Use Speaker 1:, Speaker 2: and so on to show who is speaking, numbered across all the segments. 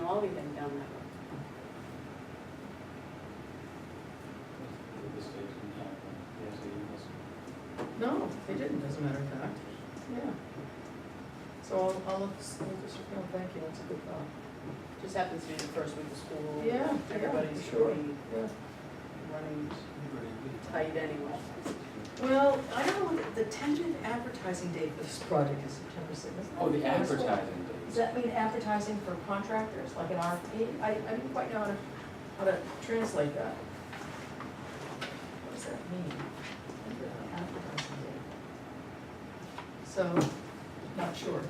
Speaker 1: probably been done that
Speaker 2: No, they didn't, as a matter of fact, yeah. So I'll, I'll, let s- I'll just, you know, oh, thank you, that's a good thought.
Speaker 1: way. Just happens to be the first week of school.
Speaker 2: Yeah, yeah,
Speaker 1: Everybody's
Speaker 2: sure.
Speaker 1: pretty running tight anyway.
Speaker 2: Well, I know that the tentative advertising date for this project is September sixth.
Speaker 3: Oh, the advertising days.
Speaker 2: Does that mean advertising for contractors, like an RFP? I, I didn't quite know how to, how to translate that. What does that mean? Tentative Advertising date. So, not sure.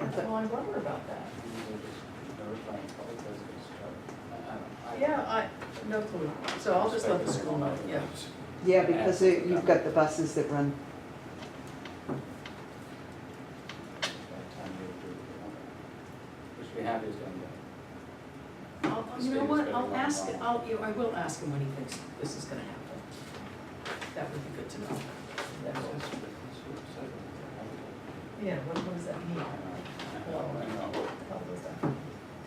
Speaker 2: That's why I wonder about that. Yeah, I, no clue, so I'll just let the school know, yeah.
Speaker 4: Yeah, because it- you've got the buses that run,
Speaker 3: Which we have is done
Speaker 2: I'll, I'll- you know what, I'll ask, I'll, you, I will ask him when he thinks this is gonna happen. That would be good to know. Yeah, what, what does that mean? How does that,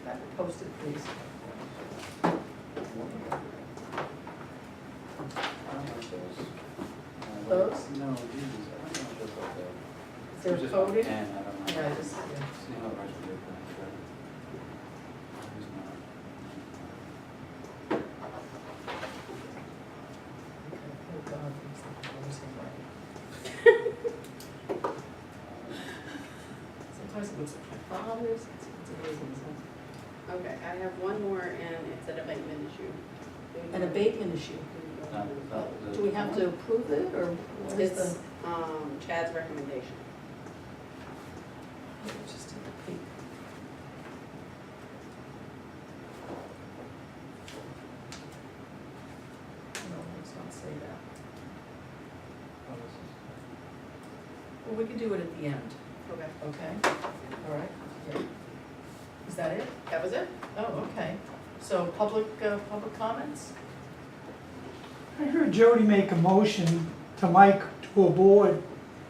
Speaker 2: that posted, please. Those?
Speaker 3: No, these, I don't know if those are there.
Speaker 2: Is there
Speaker 3: Just
Speaker 2: coding?
Speaker 3: ten, I don't know.
Speaker 2: Yeah, I just, yeah.
Speaker 3: See how much we have done, right? Who's not?
Speaker 2: Okay, oh God, it's not always in writing. Sometimes it looks like my father's, it's, it's amazing, so.
Speaker 1: Okay, I have one more and it's an abatement issue.
Speaker 2: An abatement issue.
Speaker 3: Not- not the-
Speaker 2: Do we have to approve it, or what is
Speaker 1: It's,
Speaker 2: the?
Speaker 1: um, Chad's recommendation.
Speaker 2: Let's Just take a peek. No, let's not say that.
Speaker 3: Oh, this is-
Speaker 2: Well, we can do it at the end,
Speaker 1: Okay.
Speaker 2: okay? All right. Yeah. Is that it?
Speaker 1: That was it?
Speaker 2: Oh, okay. So public, uh, public comments?
Speaker 5: I heard Jody make a motion to Mike to a board.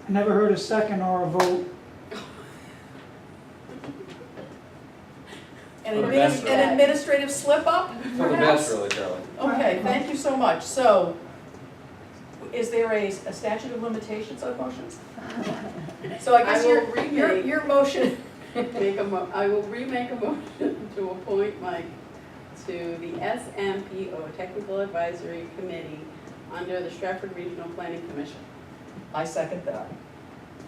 Speaker 5: I never heard a second or a vote.
Speaker 2: An
Speaker 3: For the
Speaker 2: adminis-
Speaker 3: best,
Speaker 2: An
Speaker 1: really.
Speaker 2: administrative slip-up,
Speaker 3: For the best,
Speaker 2: perhaps?
Speaker 3: really, Charlie.
Speaker 2: Okay, thank you so much. So, is there a a statute of limitations on motions? So I guess
Speaker 1: I will
Speaker 2: your, your,
Speaker 1: remake-
Speaker 2: your motion,
Speaker 1: Make a mo, I will remake a motion to appoint Mike to the SMPO Technical Advisory Committee under the Stratford Regional Planning Commission.
Speaker 2: I second that.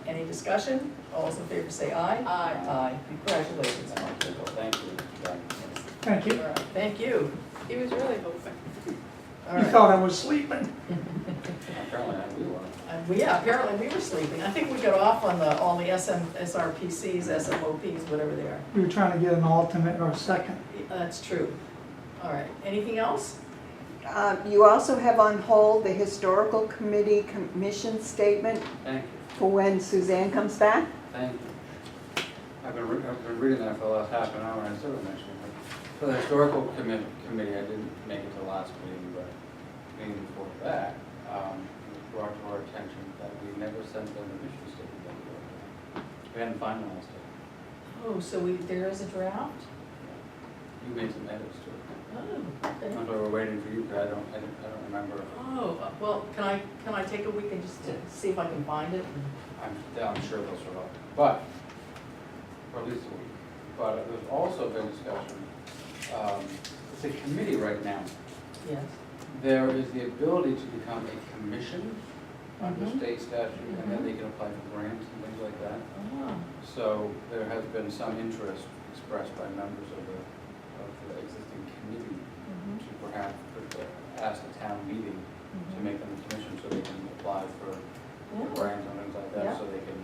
Speaker 2: Any discussion? All those in favor say aye.
Speaker 1: Aye.
Speaker 2: Aye, congratulations, Mark.
Speaker 3: Thank you. Thank you. Thank you.
Speaker 5: Thank
Speaker 2: All
Speaker 5: you.
Speaker 2: right, Thank you.
Speaker 1: He was really hoping.
Speaker 2: All
Speaker 5: You
Speaker 2: right.
Speaker 5: thought I was sleeping.
Speaker 3: Apparently, I do want
Speaker 2: And we, yeah, apparently we were sleeping. I think we got off on the, all the SM, SRPCs, SMOPs, whatever they are.
Speaker 5: You were trying to get an alternate or a second.
Speaker 2: That's true. All right, anything else?
Speaker 4: uh, you also have on hold the historical committee commission statement
Speaker 3: to. Thank you,
Speaker 4: for when Suzanne comes back.
Speaker 3: thank you. I've been, re- I've been reading that for the last half an hour, and I still haven't actually. read it. For the historical committee, committee, I didn't make it to the last meeting, but meeting before that, um, it was brought to our attention that we never sent them the mission statement. that we wrote. We hadn't finalized it.
Speaker 2: Oh, so we, there is a draft?
Speaker 3: You made some edits to it.
Speaker 2: Oh, okay.
Speaker 3: That's why we're waiting for you, but I don't, I don't, I don't remember.
Speaker 2: Oh, uh, well, can I, can I take a week and just to see if I can find it?
Speaker 3: I'm, I'm sure they'll survive, but, or at least a week. But there's also been discussion, um, it's a committee right now.
Speaker 2: Yes.
Speaker 3: There is the ability to become a commission under
Speaker 2: Mhm.
Speaker 3: state statute, and then they can apply for grants and things like that.
Speaker 2: Ah,
Speaker 3: So there has been some interest expressed by members of the, of the existing committee
Speaker 2: mhm,
Speaker 3: to perhaps ask the town meeting to
Speaker 2: mhm.
Speaker 3: make them a commission so they can apply for
Speaker 2: Yeah.
Speaker 3: grants and things like that,
Speaker 2: Oh. Yeah.
Speaker 3: so they can,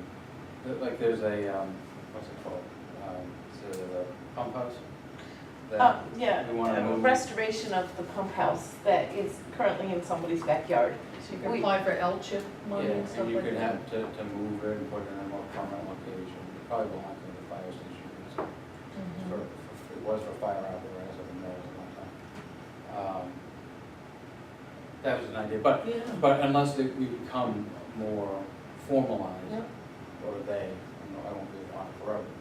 Speaker 3: th- like, there's a, um, what's it called? Um, It's a pump house? that-
Speaker 6: Uh, yeah,
Speaker 3: we wanna
Speaker 6: uh,
Speaker 3: move-
Speaker 6: restoration of the pump house that is currently in somebody's backyard.
Speaker 2: So you can
Speaker 6: We-
Speaker 2: apply for L-chip
Speaker 3: Yeah,
Speaker 2: money and stuff
Speaker 3: and you
Speaker 2: like
Speaker 3: could
Speaker 2: that?
Speaker 3: have to, to move it and put it in a more permanent location, it probably belongs to the fire station, it's
Speaker 2: Mhm.
Speaker 3: for, for- it was for fire out there, as I've been there a long time. Um, That was an idea, but,
Speaker 2: Yeah.
Speaker 3: but unless they- we become more formalized,
Speaker 2: Yeah.
Speaker 3: or they, I don't know, I won't be on forever, um,